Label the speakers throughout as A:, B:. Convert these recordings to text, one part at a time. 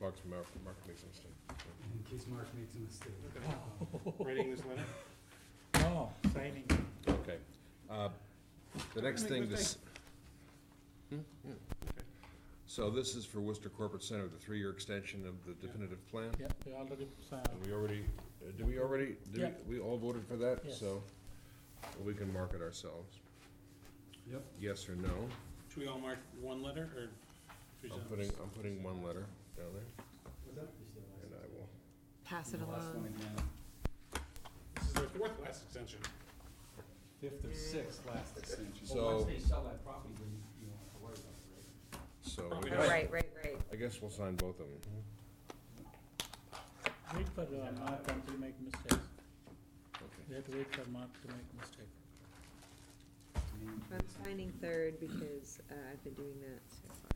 A: Mark's, Mark, Mark makes a mistake.
B: in case Mark makes a mistake.
C: Writing this letter,
D: Oh,
C: signing.
A: Okay. Uh, The next
C: Make
A: thing,
C: good
A: this. Hmm? Yeah. So this is for Worcester Corporate Center, the three-year extension of the definitive plan?
D: yeah, we already signed.
A: And we already, uh, do we already, do
D: Yeah.
A: we, we all voted for that?
D: Yes.
A: So we can mark it ourselves.
B: Yep.
A: Yes or no?
C: Should we all mark one letter or?
A: I'm putting, I'm putting one letter down there, and I will.
E: Pass it along.
C: This is their fourth last extension.
B: Fifth or sixth last extension.
A: So-
B: Once they sell that property, then you don't have to worry about it, right?
A: So
C: Probably
E: Oh, right, right, right.
A: I guess we'll sign both of them.
D: Mm-hmm. Wait for uh, Mark until make mistakes.
A: Okay.
D: We have to wait for Mark to make mistake.
B: Name,
E: I'm signing third because uh, I've been doing that so far.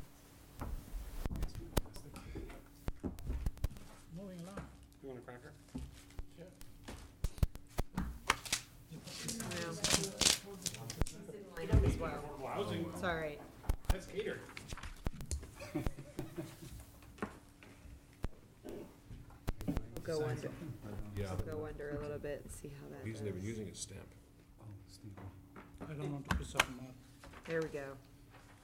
B: place, next one, next thing.
D: Moving along.
C: You want a cracker?
E: Well, he's in line up as well.
C: Affordable housing,
E: It's all right.
C: that's catered.
E: We'll Go
B: Sign
E: under,
B: something?
A: Yeah,
E: we'll go under a little bit and see how that
A: he's never
E: goes.
A: using his stamp.
B: Oh, Steve.
D: I don't want to piss off Mark.
E: There we go.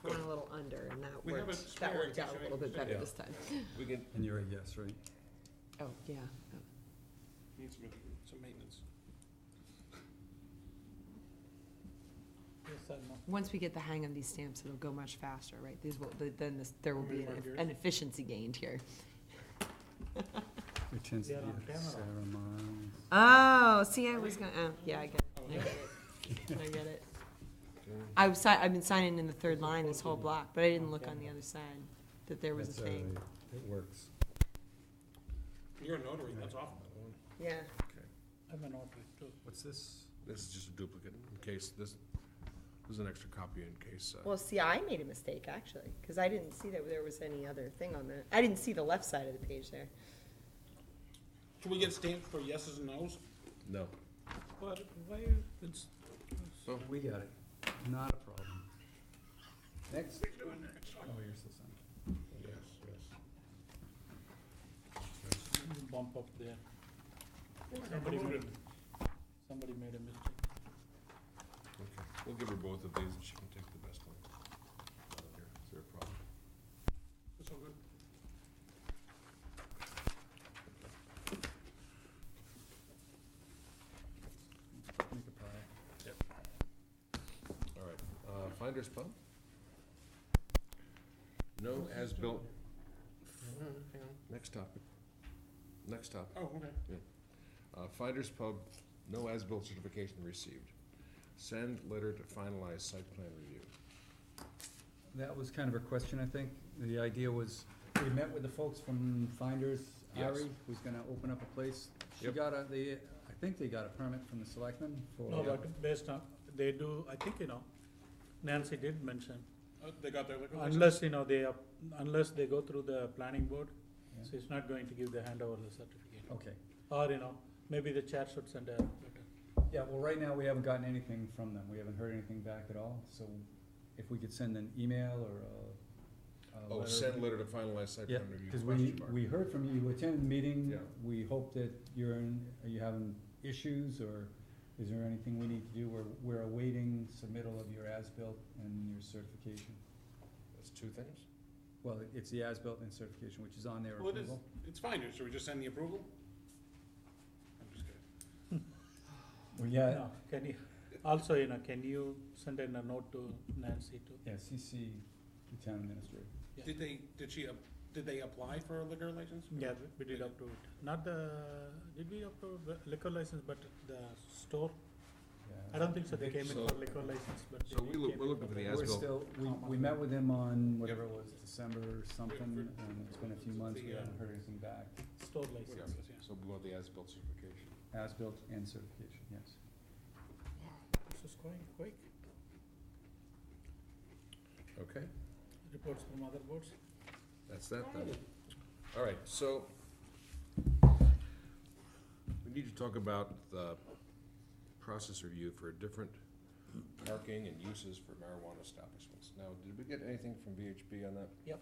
E: Went a little under and that
C: We have a
E: worked, that
C: spare
E: worked
C: in
E: out
C: case
E: a little bit
C: anything-
E: better
A: Yeah.
E: this time.
A: We can,
B: And you're a yes, right?
E: Oh, yeah.
C: Needs some, some maintenance.
D: Yes, I'm not.
E: Once we get the hang of these stamps, it'll go much faster, right? These will, th- then this, there will
C: Want me
E: be
C: to mark
E: an-
C: yours?
E: an efficiency gained here.
B: It tends to
D: They're
B: be
D: on
B: a
D: camera.
B: Sarah Miles.
E: Oh, see, I was gonna, oh, yeah, I get
C: Oh,
E: it. I get it. I get it.
A: Okay.
E: I've si- I've been signing in the third line this whole block, but I didn't look on the other side that there was a
B: That's all
E: thing.
B: right. It works.
C: You're a notary, that's awful.
E: Yeah.
A: okay.
D: I'm an author too.
B: What's this?
A: This is just a duplicate in case this, there's an extra copy in case, uh,
E: Well, see, I made a mistake actually, because I didn't see that there was any other thing on that. I didn't see the left side of the page there.
C: Should we get stamps for yeses and nos?
A: no.
D: But why, it's,
B: We got it. Not a problem. Next. Oh, you're still signing.
A: Yes, yes.
D: bump up there. Somebody made, somebody made a mistake.
A: Okay, we'll give her both of these and she can take the best one. Out of here. Is there a problem?
C: That's all good.
B: Make a pie.
A: All right, uh, Finders Pub? No as-built,
C: Hang
D: Mm-hmm.
C: on.
A: next topic, next topic.
C: Oh, okay.
A: Uh, Finders Pub, no as-built certification received. Send letter to finalize site plan review.
B: That was kind of a question, I think. The idea was, we met with the folks from Finders,
A: Yes.
B: Ari, who's gonna open up a place. She
A: Yep.
B: got a, they, I think they got a permit from the selectmen for.
D: No, but based on, they do, I think, you know, Nancy did mention,
C: Uh, They got their liquor license?
D: unless, you know, they, up- unless they go through the planning board,
B: Yeah.
D: so it's not going to give the handover the certificate.
B: Okay,
D: Or, you know, maybe the chair should send a letter.
B: yeah, well, right now, we haven't gotten anything from them. We haven't heard anything back at all, so if we could send an email or a, a
A: Oh,
B: letter.
A: send letter to finalize site
B: Yeah,
A: plan review,
B: cause we,
A: question mark.
B: we heard from you, you attended the meeting.
A: Yeah.
B: We hope that you're in, are you having issues or is there anything we need to do? We're, we're awaiting submittal of your as-built and your certification.
A: That's two things?
B: Well, it's the as-built and certification, which is on their
C: Well, it is,
B: approval.
C: it's fine, should we just send the approval? I'm just kidding.
B: Well, yeah,
D: No, can you, also, you know, can you send in a note to Nancy too?
B: yeah, CC, the town administrator.
D: Yeah.
C: Did they, did she, ap- did they apply for a liquor license?
D: Yeah, we- we did approve it. Not the, did we approve the liquor license, but the store? I don't think so, they came in
A: So-
D: for liquor license, but.
A: so
D: they
A: we look-
D: came
A: we're
D: in
A: looking for the
B: We're
A: as-built.
B: still, we, we met with him on whatever it was, December or something, and it's been a few months, we
C: The, uh,
B: haven't heard anything back.
D: Store license.
C: License, yeah.
A: So we want the as-built certification.
B: As-built and certification, yes.
D: This is going quick.
A: Okay,
D: Reports from other boards.
A: that's that then. All right, so we need to talk about the process review for different parking and uses for marijuana establishments. Now, did we get anything from VHB on that?
D: Yep.